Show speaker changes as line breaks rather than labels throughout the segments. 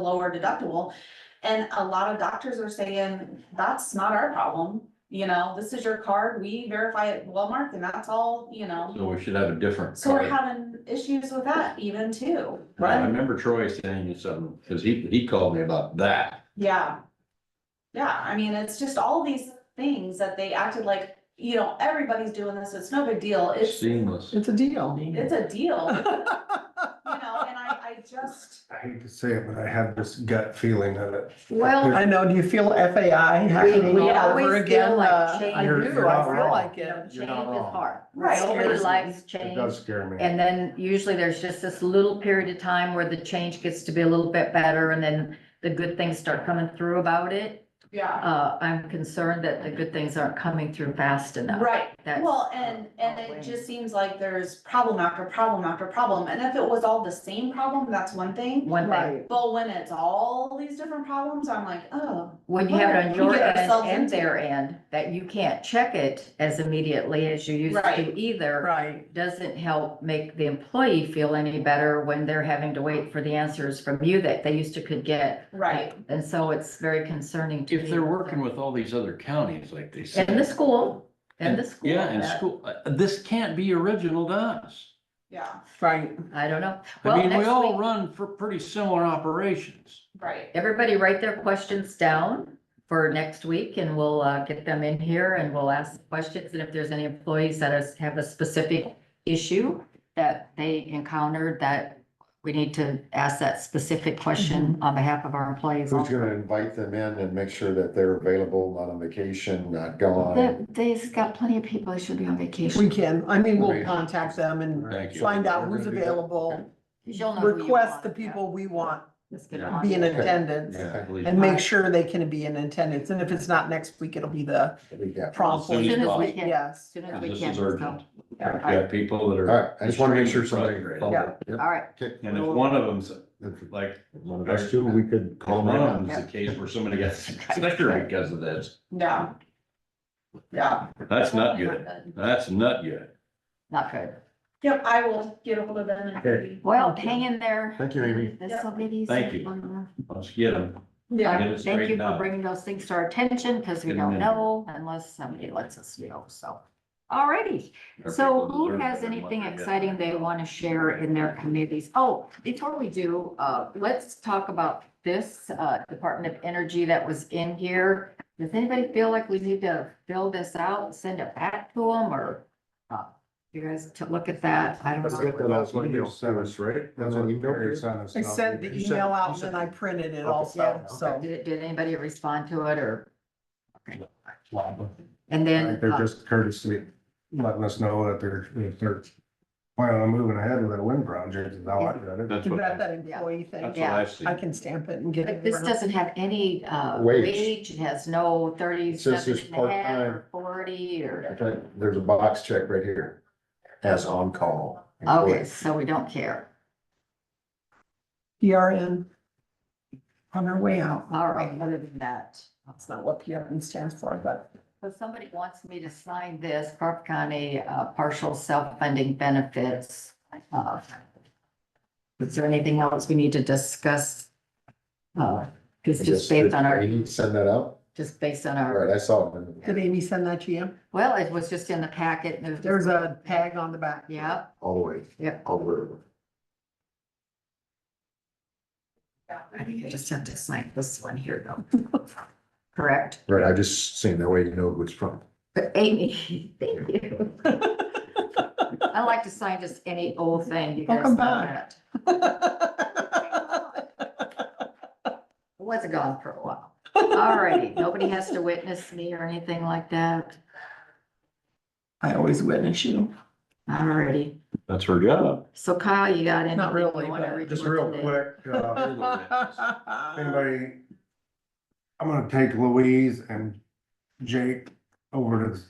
lower deductible. And a lot of doctors are saying, that's not our problem, you know, this is your card, we verify at Walmart and that's all, you know.
So we should have a different.
So we're
card.
having issues with that even too,
I
right?
remember Troy saying something, because he, he called me about that.
Yeah. Yeah, I mean, it's just all these things that they acted like, you know, everybody's doing this, it's no big deal, it's,
Seamless.
It's a deal.
it's a deal. You know, and I, I just,
I hate to say it, but I have this gut feeling of it.
Well, I know, do you feel FAI happening
We
all
always
over
feel
again?
like
Uh,
change
I
You're-
do,
you're
I
not
feel
wrong.
like it.
Change is
You're not wrong.
hard.
Right.
Nobody
Seriously.
likes
It
change.
does scare me.
And then usually there's just this little period of time where the change gets to be a little bit better and then the good things start coming through about it.
yeah,
Uh, I'm concerned that the good things aren't coming through fast enough.
right,
That's-
Well, and, and it just seems like there's problem after problem after problem, and if it was all the same problem, that's one
Mm-hmm.
thing.
One thing,
Right.
But when it's all these different problems, I'm like, oh,
when you have it on
We
your
get
end
ourselves
and
into
their end, that you can't check it as immediately as you used
Right.
to either.
Right,
doesn't help make the employee feel any better when they're having to wait for the answers from you that they used to could get.
right,
And so it's very concerning to me.
If they're working with all these other counties like they said.
And the school, and the school.
Yeah, and
that-
school, uh, this can't be original to us.
yeah,
right.
I don't know.
I
Well,
mean, we
next
all
week,
run for pretty similar operations.
right.
everybody write their questions down for next week and we'll uh, get them in here and we'll ask questions. And if there's any employees that has- have a specific issue that they encountered that we need to ask that specific question on behalf of our employees.
Who's gonna invite them in and make sure that they're available, not on vacation, not
They-
gone?
They've got plenty of people that should be on
We
vacation.
can, I mean, we'll
Right.
contact them and
Thank you.
find out
We're
who's
gonna do that. Okay.
available,
You'll know who you
request
want,
the
yeah.
people we want
Let's get
Yeah.
them on.
be in
Okay.
attendance.
Yeah. please.
And make sure they can be in attendance, and if it's not next week, it'll be the
We got-
prompt.
As soon as
one.
we can.
Yes,
Soon as we
This
can,
is
so-
urgent.
Yeah.
We've got people that
All
are.
right, I just wanna make sure somebody.
Yeah.
Yep.
All right,
Okay.
And if one of them's like,
One of us two, we could call
call
them
on,
out.
it's a case where somebody got sicker because of this,
Yeah. Yeah,
that's not good. That's not good.
not good.
yep, I will get ahold of them and.
Well, hang in there.
Thank you, Amy.
This will get easy.
Thank you. Let's get them.
Yeah,
Get it
Thank you
straightened
for
out.
bringing those things to our attention because we
Get 'em
don't
in.
know unless somebody lets us know, so. All righty.
Our
So
people
who
deserve better
has
than what
anything
they get.
exciting they want to share in their committees? Oh, before we do, uh, let's talk about this, uh, Department of Energy that was in here. Does anybody feel like we need to fill this out, and send it back to them or? uh, You guys to look at that, I don't
Let's get
know.
that out. Email service, right? That's what email sent us.
I sent the email out and then I printed it also,
Yeah.
so.
Did, did anybody respond to it or? Okay.
They're
And then, uh,
just courtesy, letting us know that they're, if they're planning on moving ahead with that wind project, is how I read it.
That's
You
what,
got
that's
that employee thing,
what
yeah.
I've
I
seen.
can stamp it and get
But
it.
this
around.
doesn't have any, uh,
Wage.
wage, it has no
Says
thirty-seven
it's
and a half
part-time.
or forty or,
Okay, There's a box check right here, as on call.
okay, so we don't care.
PRN on our way out.
All right, other than that,
That's not what PRN stands for, but
so somebody wants me to sign this Carp County, uh, partial self-funding benefits. uh, Is there anything else we need to discuss? Uh, cause just based on our,
Did you Send that out?
just based on
All
our,
right, I saw it.
did Amy send that to you?
well, it was just in the packet. and it was-
There's a tag on the back.
Yeah,
All the way.
Yep.
All the way.
I think I just have to sign this one here though. Correct?
Right, I just seen that way you know who it's from.
But Amy, thank you. I like to sign just any old thing, you guys know
Welcome back.
that. I wasn't gone for a while. Alrighty, nobody has to witness me or anything like that.
I always witness you.
Alrighty,
That's her job.
so Kyle, you got anything?
Not really,
you wanna
but-
read
Just
for
real
today?
quick, uh,
Anybody?
anybody, I'm gonna take Louise and Jake over to the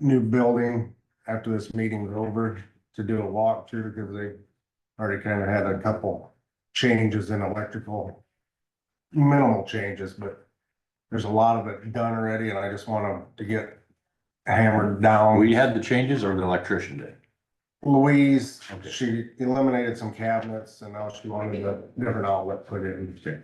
new building after this meeting's over to do a walkthrough, because they already kind of had a couple changes in electrical. Minimal changes, but there's a lot of it done already, and I just want 'em to get hammered down.
We had the changes or the electrician did?
Louise,
Okay.
she eliminated some cabinets and now she wanted a different outlet put in.